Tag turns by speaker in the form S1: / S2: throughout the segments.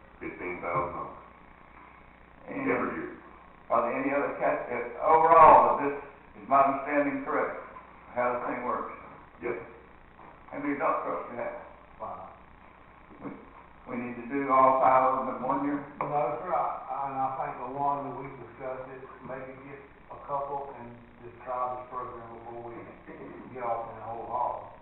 S1: uh, understanding correct, how the thing works?
S2: Yes.
S1: How many dump trucks you have?
S3: Wow.
S1: We need to do all five of them in one year?
S3: No, sir, I, I- and I think the one that we discussed it, maybe get a couple and just try this program before we get off in the whole hall.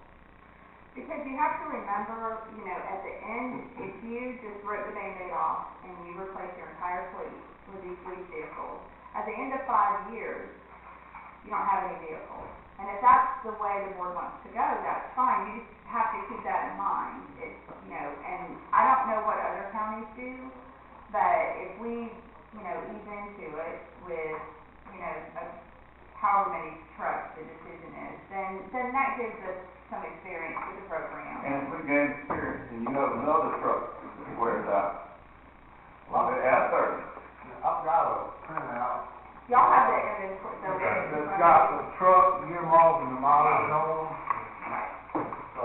S4: Because you have to remember, you know, at the end, if you just rip the Band-Aid off and you replace your entire fleet with these lease vehicles, at the end of five years, you don't have any vehicles. And if that's the way the board wants to go, that's fine, you just have to keep that in mind, it's, you know, and I don't know what other counties do, but if we, you know, ease into it with, you know, a- however many trucks the decision is, then, then that gives us some experience with the program.
S1: And if we gain experience and you have another truck that wears out, well, it out there.
S3: I've got a printout.
S4: Y'all have the inventory, the.
S3: That's got the truck, year-long, and the mileage on them, so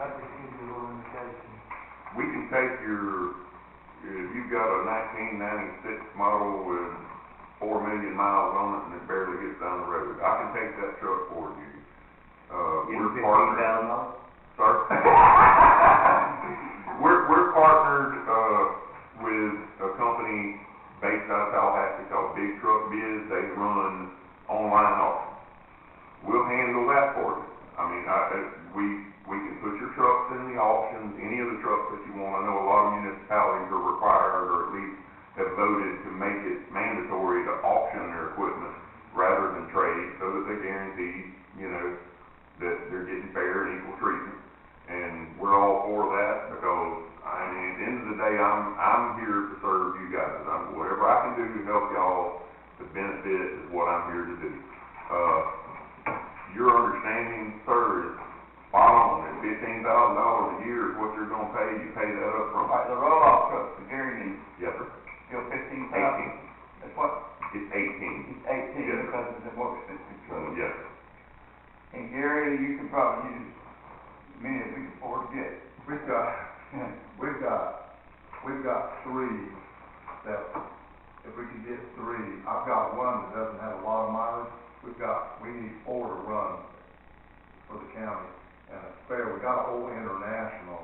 S3: that just gives you a little indication.
S2: We can take your, if you've got a nineteen ninety-six model with four million miles on it and it barely gets down the road, I can take that truck for you. Uh, we're partnered,
S5: dollars?
S2: sir? We're, we're partnered, uh, with a company based out of Tallahassee called Big Truck Biz, they run online auctions. We'll handle that for you. I mean, I, I- we, we can put your trucks in the auctions, any of the trucks that you want. I know a lot of municipalities are required, or at least have voted to make it mandatory to auction their equipment rather than trade, so that they guarantee, you know, that they're getting fair and equal treatment. And we're all for that, because, I mean, at the end of the day, I'm, I'm here to serve you guys. I'm, whatever I can do to help y'all to benefit is what I'm here to do. Uh, your understanding, sir, is spot on, and fifteen thousand dollars a year is what you're gonna pay, you pay that up front.
S1: Like the roll-off truck, the Gary needs,
S2: Yes, sir.
S1: still fifteen
S2: Eighteen,
S1: thousand. That's what,
S2: it's eighteen.
S1: it's eighteen
S2: Yeah.
S1: because it's a more expensive
S2: Uh,
S1: truck.
S2: Yes,
S1: And Gary, you can probably use as many as we can afford to get.
S6: We've got, we've got, we've got three that, if we could get three, I've got one that doesn't have a lot of mileage. We've got, we need four to run for the county, and it's fair, we got an old international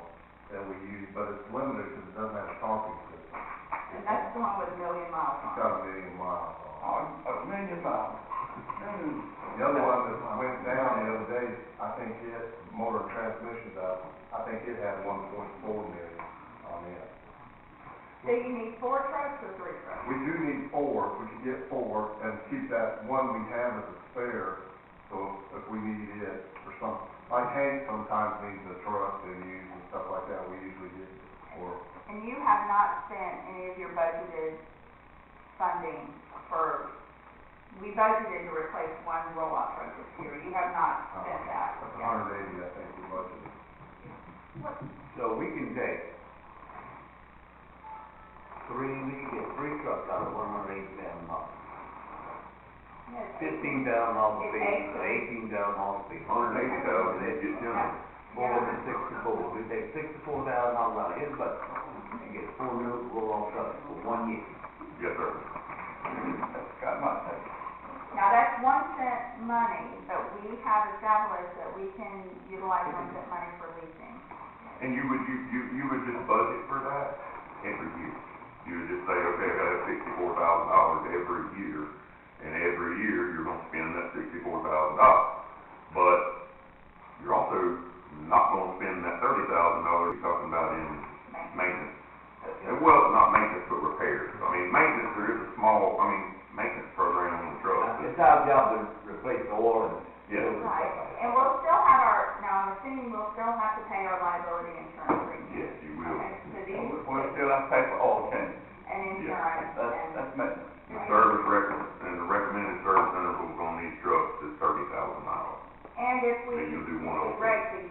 S6: that we use, but it's limited because it doesn't have a talking system.
S4: And that's the one with a million miles
S6: It's
S4: on it.
S6: got a million miles on it.
S1: Oh, a million miles. Mm.
S6: The other one that went down the other day, I think it, motor transmission's out, I think it had one point four million on it.
S4: So you need four trucks or three trucks?
S6: We do need four, if we could get four, and keep that one we have as a spare, so if we need it for something. Like Hank sometimes needs a truck to use and stuff like that, we usually get, or,
S4: And you have not spent any of your budgeted funding for, we budgeted to replace one roll-off truck this year, you have not
S6: uh,
S4: spent that.
S6: that's
S4: yet.
S6: hundred eighty, I think, we budgeted.
S5: So we can take three, we can get three trucks out of one hundred eighty thousand dollars.
S4: Yes.
S5: Fifteen thousand dollars
S4: It's
S5: fee,
S4: eight.
S5: eighteen thousand dollars fee.
S2: hundred eighty thousand, you get them.
S5: Four hundred sixty-four, we take sixty-four thousand dollars out of his budget, and get four new roll-off trucks for one year.
S2: Yes, sir.
S1: That's got my attention.
S4: Now, that's one cent money, but we have established that we can utilize one cent money for leasing.
S2: And you would, you, you, you would just budget for that every year. You would just say, okay, I have sixty-four thousand dollars every year, and every year you're gonna spend that sixty-four thousand dollars. But you're also not gonna spend that thirty thousand dollars you're talking about in maintenance. And well, not maintenance, but repairs. I mean, maintenance, there is a small, I mean, maintenance program on the truck.
S5: Now,
S2: but-
S5: It's our job to replace the oil and.
S2: Yeah.
S4: Right, and we'll still have our, now, I'm assuming we'll still have to pay our liability insurance premium.
S2: Yes, you will.
S4: Okay, so
S1: And
S4: these,
S1: we- We'll still have to pay for all changes.
S4: and insurance,
S1: That's,
S4: and,
S1: that's maintenance.
S2: The service rec, and the recommended service intervals on these trucks is thirty thousand miles.
S4: and if we
S2: And you'll do one over.
S4: break the